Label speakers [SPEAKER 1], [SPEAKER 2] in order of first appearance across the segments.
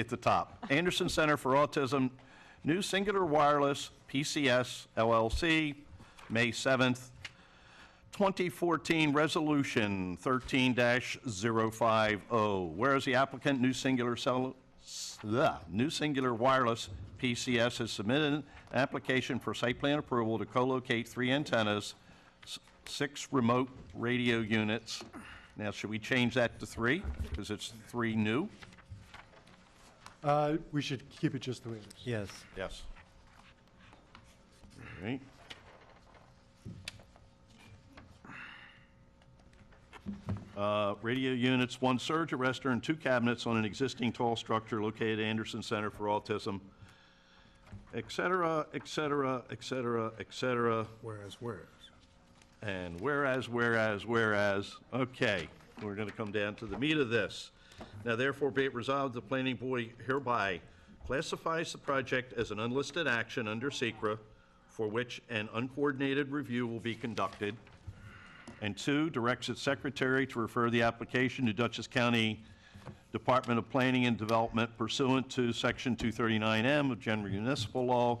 [SPEAKER 1] at the top. Anderson Center for Autism, New Singular Wireless, PCS LLC, May 7th, 2014 Resolution 13-050. Whereas oh. the applicant, New Singular Cell, s- the New Singular Wireless PCS has submitted an application for site plan approval to co-locate three antennas, s- six remote radio units. Now, should we change that to three? Because it's three new?
[SPEAKER 2] Uh, We should keep it just the way it is.
[SPEAKER 3] Yes.
[SPEAKER 1] Yes. All right. Uh, Radio units, one surge arrestor and two cabinets on an existing tall structure located at Anderson Center for Autism, et cetera, et cetera, et cetera, et cetera.
[SPEAKER 4] Whereas, whereas.
[SPEAKER 1] And whereas, whereas, whereas, okay, we're going to come down to the meat of this. Now therefore be it resolved, the planning board hereby classifies the project as an unlisted action under Secra, for which an uncoordinated review will be conducted. And two, directs its secretary to refer the application to Dutchess County Department of Planning and Development pursuant to Section 239M of General Municipal Law,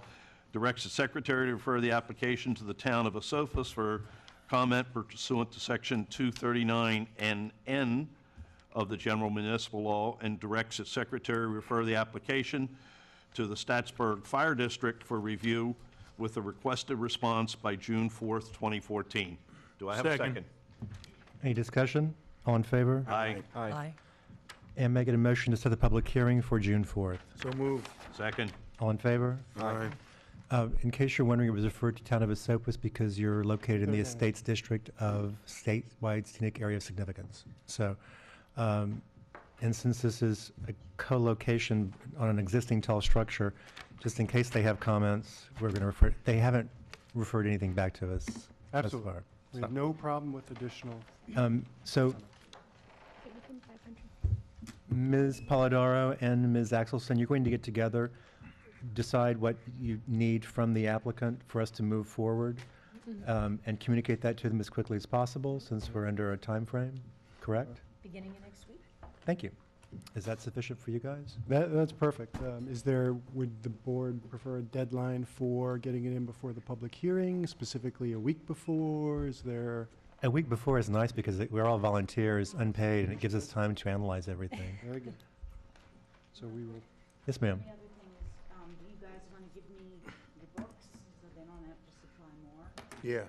[SPEAKER 1] directs the secretary to refer the application to the town of Asofas for comment pursuant to Section 239NN of the General Municipal Law, and directs its secretary to refer the application to the Statsburg Fire District for review with a requested response by June 4th, 2014. Do I have a
[SPEAKER 4] Second.
[SPEAKER 1] second?
[SPEAKER 3] Any discussion? All in favor?
[SPEAKER 1] Aye.
[SPEAKER 5] Aye.
[SPEAKER 3] And make it a motion to set the public hearing for June 4th.
[SPEAKER 4] So move.
[SPEAKER 1] Second.
[SPEAKER 3] All in favor?
[SPEAKER 4] Aye.
[SPEAKER 3] Uh, In case you're wondering, it was referred to town of Esopus because you're located in the Estates District of statewide scenic area of significance. So, um, and since this is a co-location on an existing tall structure, just in case they have comments, we're going to refer, they haven't referred anything back to us thus
[SPEAKER 2] Absolutely.
[SPEAKER 3] far.
[SPEAKER 2] We have no problem with additional,
[SPEAKER 3] Um, So Ms. Polidoro and Ms. Axelson, you're going to get together, decide what you need from the applicant for us to move forward,
[SPEAKER 5] Mm-hmm.
[SPEAKER 3] um, and communicate that to them as quickly as possible, since we're under a time frame. correct?
[SPEAKER 5] Beginning of next week?
[SPEAKER 3] Thank you. Is that sufficient for you guys?
[SPEAKER 2] that, that's perfect. Um, Is there, would the board prefer a deadline for getting it in before the public hearing, specifically a week before? Is there,
[SPEAKER 3] A week before is nice because it- we're all volunteers, unpaid, and it gives us time to analyze everything.
[SPEAKER 2] very good. So we will,
[SPEAKER 3] Yes, ma'am.
[SPEAKER 6] The other thing is, um, you guys want to give me the books so they don't have to supply more?
[SPEAKER 4] Yeah.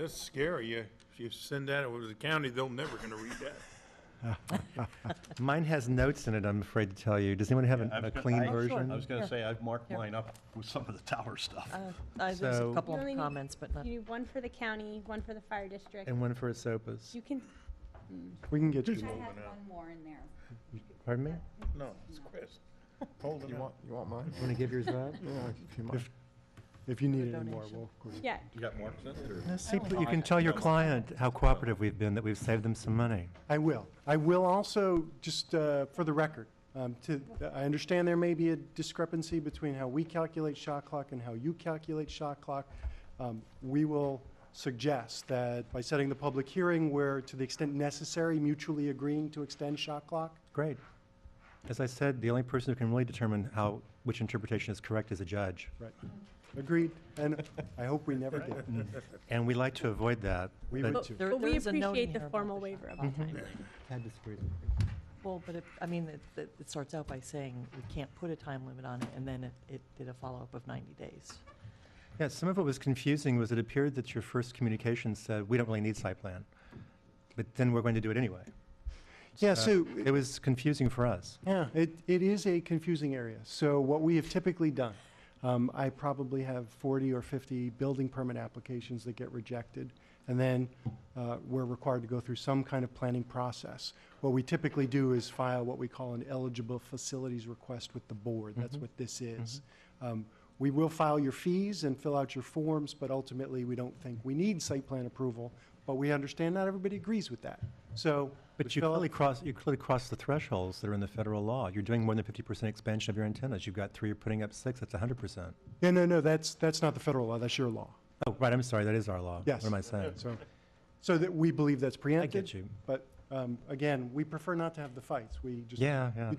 [SPEAKER 4] That's scary. You, if you send that over to the county, they'll never gonna read that.
[SPEAKER 3] Mine has notes in it, I'm afraid to tell you. Does anyone have an-
[SPEAKER 1] I was
[SPEAKER 3] a
[SPEAKER 1] gonna-
[SPEAKER 3] clean
[SPEAKER 1] I-
[SPEAKER 3] version?
[SPEAKER 1] I was going
[SPEAKER 5] Yeah.
[SPEAKER 1] to say, I've marked mine up with some of the tower stuff.
[SPEAKER 5] Uh, There's
[SPEAKER 3] So-
[SPEAKER 5] a couple
[SPEAKER 7] You only
[SPEAKER 5] of
[SPEAKER 7] need-
[SPEAKER 5] comments, but not,
[SPEAKER 7] You need one for the county, one for the fire district.
[SPEAKER 3] And one for Esopus.
[SPEAKER 7] You can,
[SPEAKER 2] we can get you.
[SPEAKER 6] I had one more in there.
[SPEAKER 3] Pardon me?
[SPEAKER 4] No, it's Chris. Hold it up.
[SPEAKER 8] You want mine?
[SPEAKER 3] Want to give yours up?
[SPEAKER 8] Yeah, if you mind.
[SPEAKER 2] If you need any more, we'll, of course.
[SPEAKER 7] yeah,
[SPEAKER 1] You got marks in it, or?
[SPEAKER 3] No, see, pl- you can tell your client how cooperative we've been, that we've saved them some money.
[SPEAKER 2] I will. I will also, just uh, for the record, um, to, I understand there may be a discrepancy between how we calculate shot clock and how you calculate shot clock. Um, We will suggest that by setting the public hearing, we're, to the extent necessary, mutually agreeing to extend shot clock.
[SPEAKER 3] Great. As I said, the only person who can really determine how, which interpretation is correct is a judge.
[SPEAKER 2] Right. Agreed. And I hope we never get there.
[SPEAKER 3] And we like to avoid that.
[SPEAKER 2] We
[SPEAKER 3] but-
[SPEAKER 2] would too.
[SPEAKER 5] there
[SPEAKER 7] but
[SPEAKER 5] there
[SPEAKER 7] we
[SPEAKER 5] is a note in
[SPEAKER 7] appreciate the
[SPEAKER 5] here about
[SPEAKER 7] formal
[SPEAKER 5] shot
[SPEAKER 7] waiver of
[SPEAKER 5] clock.
[SPEAKER 7] the time.
[SPEAKER 5] Well, but it, I mean, it- it, it starts out by saying we can't put a time limit on it, and then it, it did a follow-up of 90 days.
[SPEAKER 3] Yeah, some of what was confusing was it appeared that your first communication said, we don't really need site plan, but then we're going to do it anyway.
[SPEAKER 2] Yeah,
[SPEAKER 3] Uh,
[SPEAKER 2] so
[SPEAKER 3] It was confusing for us.
[SPEAKER 2] Yeah, it, it is a confusing area. So what we have typically done, um, I probably have 40 or 50 building permit applications that get rejected. And then uh, we're required to go through some kind of planning process. What we typically do is file what we call an eligible facilities request with the board. That's what this is. Um, We will file your fees and fill out your forms, but ultimately, we don't think we need site plan approval. But we understand not everybody agrees with that. So. we
[SPEAKER 3] But you
[SPEAKER 2] fill out-
[SPEAKER 3] clearly cross, you clearly crossed the thresholds that are in the federal law. You're doing more than 50% expansion of your antennas. You've got three, you're putting up six, that's 100%.
[SPEAKER 2] Yeah, no, no, that's, that's not the federal law, that's your law.
[SPEAKER 3] Oh, right, I'm sorry, that is our law.
[SPEAKER 2] Yes.
[SPEAKER 3] What am I saying?
[SPEAKER 2] So, so that we believe that's preempted.
[SPEAKER 3] you.
[SPEAKER 2] But Um, Again, we prefer not to have the fights. We just
[SPEAKER 3] Yeah, yeah.